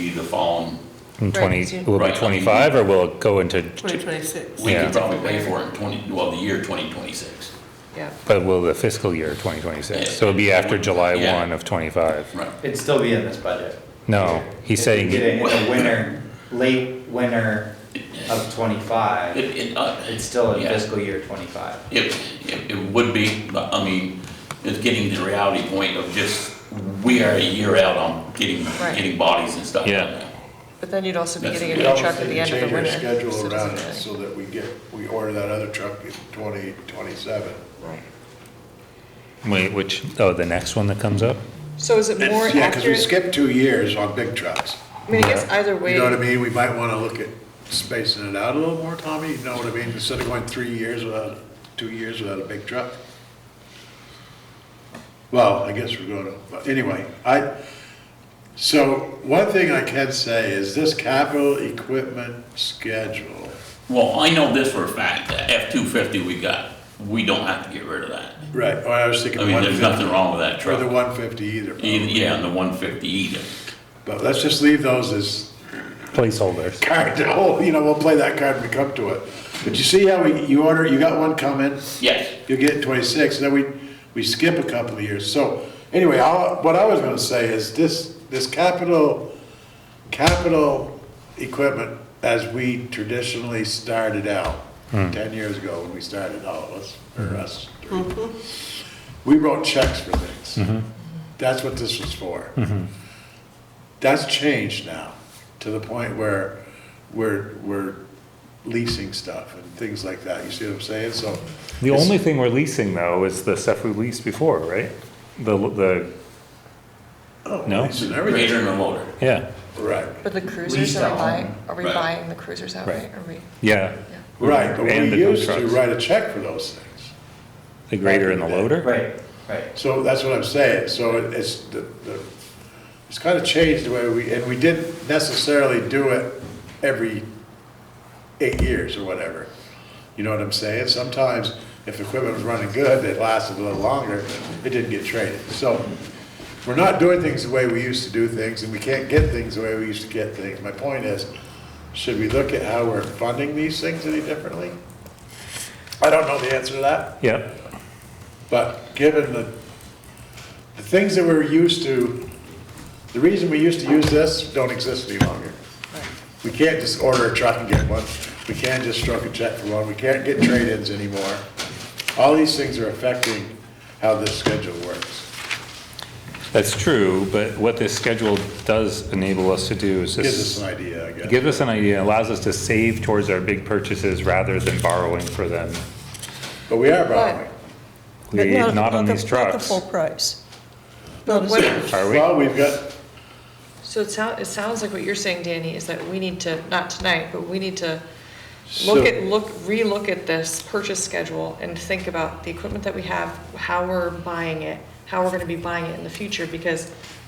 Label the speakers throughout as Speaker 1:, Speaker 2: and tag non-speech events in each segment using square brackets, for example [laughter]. Speaker 1: be the following,
Speaker 2: in twenty,
Speaker 3: Right,
Speaker 2: will
Speaker 1: right,
Speaker 2: it be
Speaker 1: I mean-
Speaker 2: twenty-five or will it go into, j-
Speaker 3: 2026.
Speaker 1: we
Speaker 2: Yeah.
Speaker 1: could probably pay for it in twenty, well, the year twenty twenty-six.
Speaker 3: Yeah,
Speaker 2: but will the fiscal year twenty twenty-six? So it'll be after July
Speaker 1: Yeah.
Speaker 2: one of twenty-five?
Speaker 1: Right.
Speaker 4: It'd still be in this budget.
Speaker 2: No, he's saying,
Speaker 4: If you
Speaker 2: it-
Speaker 4: get it in the winter, late winter of
Speaker 1: It,
Speaker 4: twenty-five,
Speaker 1: it, uh,
Speaker 4: it's still in
Speaker 1: Yeah.
Speaker 4: fiscal year twenty-five.
Speaker 1: It, it, it would be, but I mean, it's getting to the reality point of just, we are a year out on getting,
Speaker 3: Right.
Speaker 1: getting bodies and stuff. like
Speaker 2: Yeah.
Speaker 1: that.
Speaker 3: but then you'd also be
Speaker 1: That's-
Speaker 3: getting a
Speaker 1: we
Speaker 3: new truck at the end of
Speaker 5: Change
Speaker 3: the
Speaker 5: our
Speaker 3: winter. so it
Speaker 5: schedule
Speaker 3: doesn't
Speaker 5: around it
Speaker 3: really-
Speaker 5: so that we get, we order that other truck in twenty twenty-seven.
Speaker 3: right.
Speaker 2: wait, which, oh, the next one that comes up?
Speaker 3: So is it more
Speaker 5: Yeah, because we
Speaker 3: accurate?
Speaker 5: skipped two years on big trucks.
Speaker 3: I mean, I guess either way.
Speaker 5: You know what I mean? We might want to look at spacing it out a little more, Tommy, you know what I mean? Instead of going three years without, two years without a big truck. Well, I guess we're going to, but anyway, I, so one thing I can say is this capital equipment schedule,
Speaker 1: Well, I know this for a fact, that F two fifty we got, we don't have to get rid of that.
Speaker 5: right, or I was
Speaker 1: I
Speaker 5: thinking
Speaker 1: mean,
Speaker 5: one
Speaker 1: there's nothing
Speaker 5: fifty,
Speaker 1: wrong with that
Speaker 5: or the
Speaker 1: truck.
Speaker 5: one fifty either.
Speaker 1: Either, yeah, and the one fifty either.
Speaker 5: But let's just leave those as
Speaker 2: Placeholders.
Speaker 5: card, [laughs] to hold. you know, we'll play that card when we come to it. But you see how we, you order, you got one coming,
Speaker 1: Yes,
Speaker 5: you get twenty-six, then we, we skip a couple of years. So, anyway, I, what I was gonna say is this, this capital, capital equipment, as we traditionally started out,
Speaker 2: Hmm.
Speaker 5: ten years ago when we started, all of us, or us, three, we wrote checks for
Speaker 2: Mm-hmm.
Speaker 5: things. That's what this was for. That's changed now, to the point where we're, we're leasing stuff and things like that, you see what I'm saying? So.
Speaker 2: The
Speaker 5: it's-
Speaker 2: only thing we're leasing though is the stuff we leased before, right? The, the,
Speaker 5: Oh,
Speaker 2: No?
Speaker 5: lease and everything.
Speaker 1: grader and a loader.
Speaker 2: yeah,
Speaker 5: Right,
Speaker 3: But the cruisers,
Speaker 4: Leased
Speaker 3: are we
Speaker 4: out.
Speaker 3: buying, are we
Speaker 1: Right.
Speaker 3: buying the cruisers outright?
Speaker 2: Right.
Speaker 3: Are we,
Speaker 2: yeah,
Speaker 5: right, but
Speaker 2: And the
Speaker 5: we
Speaker 2: dump
Speaker 5: used to
Speaker 2: trucks.
Speaker 5: write a check for those things.
Speaker 2: the grader and the loader?
Speaker 4: Right, right.
Speaker 5: So that's what I'm saying, so it- it's, the, the, it's kind of changed the way we, and we didn't necessarily do it every eight years or whatever. You know what I'm saying? Sometimes if the equipment was running good, it lasted a little longer, it didn't get traded. So we're not doing things the way we used to do things, and we can't get things the way we used to get things. My point is, should we look at how we're funding these things any differently? I don't know the answer to that.
Speaker 2: Yeah,
Speaker 5: But given the, the things that we're used to, the reason we used to use this don't exist any longer. We can't just order a truck and get one. We can't just stroke a check for one. We can't get trade-ins anymore. All these things are affecting how this schedule works.
Speaker 2: that's true, but what this schedule does enable us to do is
Speaker 5: Gives us
Speaker 2: just
Speaker 5: an idea, I guess.
Speaker 2: give us an idea, allows us to save towards our big purchases rather than borrowing for them.
Speaker 5: But we are borrowing.
Speaker 6: But
Speaker 2: We, not on
Speaker 6: the-
Speaker 2: these
Speaker 6: Not the
Speaker 2: trucks,
Speaker 6: full price.
Speaker 3: but what,
Speaker 2: are we?
Speaker 5: Well, we've got,
Speaker 3: so it sounds, it sounds like what you're saying, Danny, is that we need to, not tonight, but we need to
Speaker 5: So-
Speaker 3: look at, look, relook at this purchase schedule and think about the equipment that we have, how we're buying it, how we're gonna be buying it in the future, because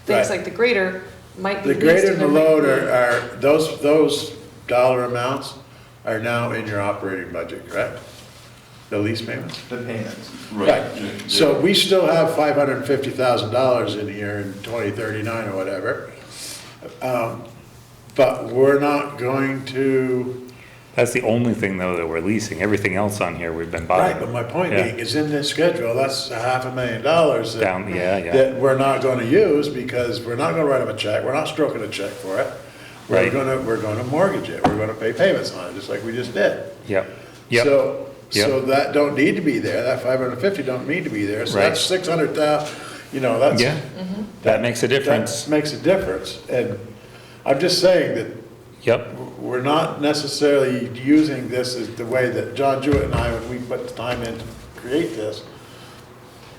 Speaker 3: things
Speaker 5: Right.
Speaker 3: like the grader might be leased.
Speaker 5: the greater and the
Speaker 3: there might
Speaker 5: load
Speaker 3: be-
Speaker 5: are, are, those, those dollar amounts are now in your operating budget, correct? The lease payments?
Speaker 4: The payments.
Speaker 5: Right, so we still have five hundred and fifty thousand dollars in here in twenty thirty-nine or whatever. Um, But we're not going to,
Speaker 2: That's the only thing though that we're leasing, everything else on here we've been buying.
Speaker 5: right, but my point
Speaker 2: Yeah.
Speaker 5: being, is in this schedule, that's a half a million dollars that.
Speaker 2: Down, yeah, yeah.
Speaker 5: That we're not gonna use because we're not gonna write them a check, we're not stroking a check for it. We're
Speaker 2: Right.
Speaker 5: gonna, we're gonna mortgage it, we're gonna pay payments on it, just like we just did.
Speaker 2: Yep, yep,
Speaker 5: So,
Speaker 2: Yep.
Speaker 5: so that don't need to be there, that five hundred and fifty don't need to be there, so
Speaker 2: Right.
Speaker 5: that's six hundred thousand, you know, that's.
Speaker 2: yeah, that makes a
Speaker 5: Mm-hmm. That
Speaker 2: difference,
Speaker 5: makes a difference, and I'm just saying that
Speaker 2: yep.
Speaker 5: we're not necessarily using this as the way that John Jewett and I, when we put the time in to create this,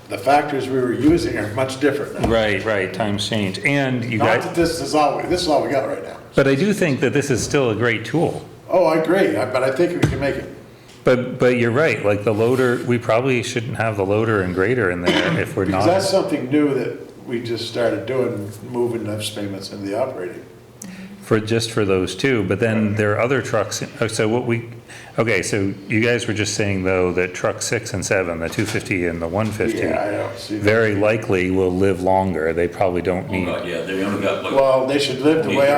Speaker 5: the factors we were using are much different now.
Speaker 2: Right, right, times change, and you
Speaker 5: Not that
Speaker 2: guys,
Speaker 5: this is all, this is all we got right now.
Speaker 2: but I do think that this is still a great tool.
Speaker 5: Oh, I agree, I- but I think we can make it,
Speaker 2: But, but you're right, like the loader, we probably shouldn't have the loader and grader in there if we're
Speaker 5: because that's
Speaker 2: not.
Speaker 5: something new that we just started doing, moving those payments into the operating.
Speaker 2: For, just for those two, but then there are other trucks, oh, so what we, okay, so you guys were just saying though that truck six and seven, the two fifty and the one fifty,
Speaker 5: Yeah, I don't see that.
Speaker 2: very likely will live longer, they probably don't
Speaker 1: Oh,
Speaker 2: need
Speaker 1: God, yeah, they only got like
Speaker 5: Well, they should live the way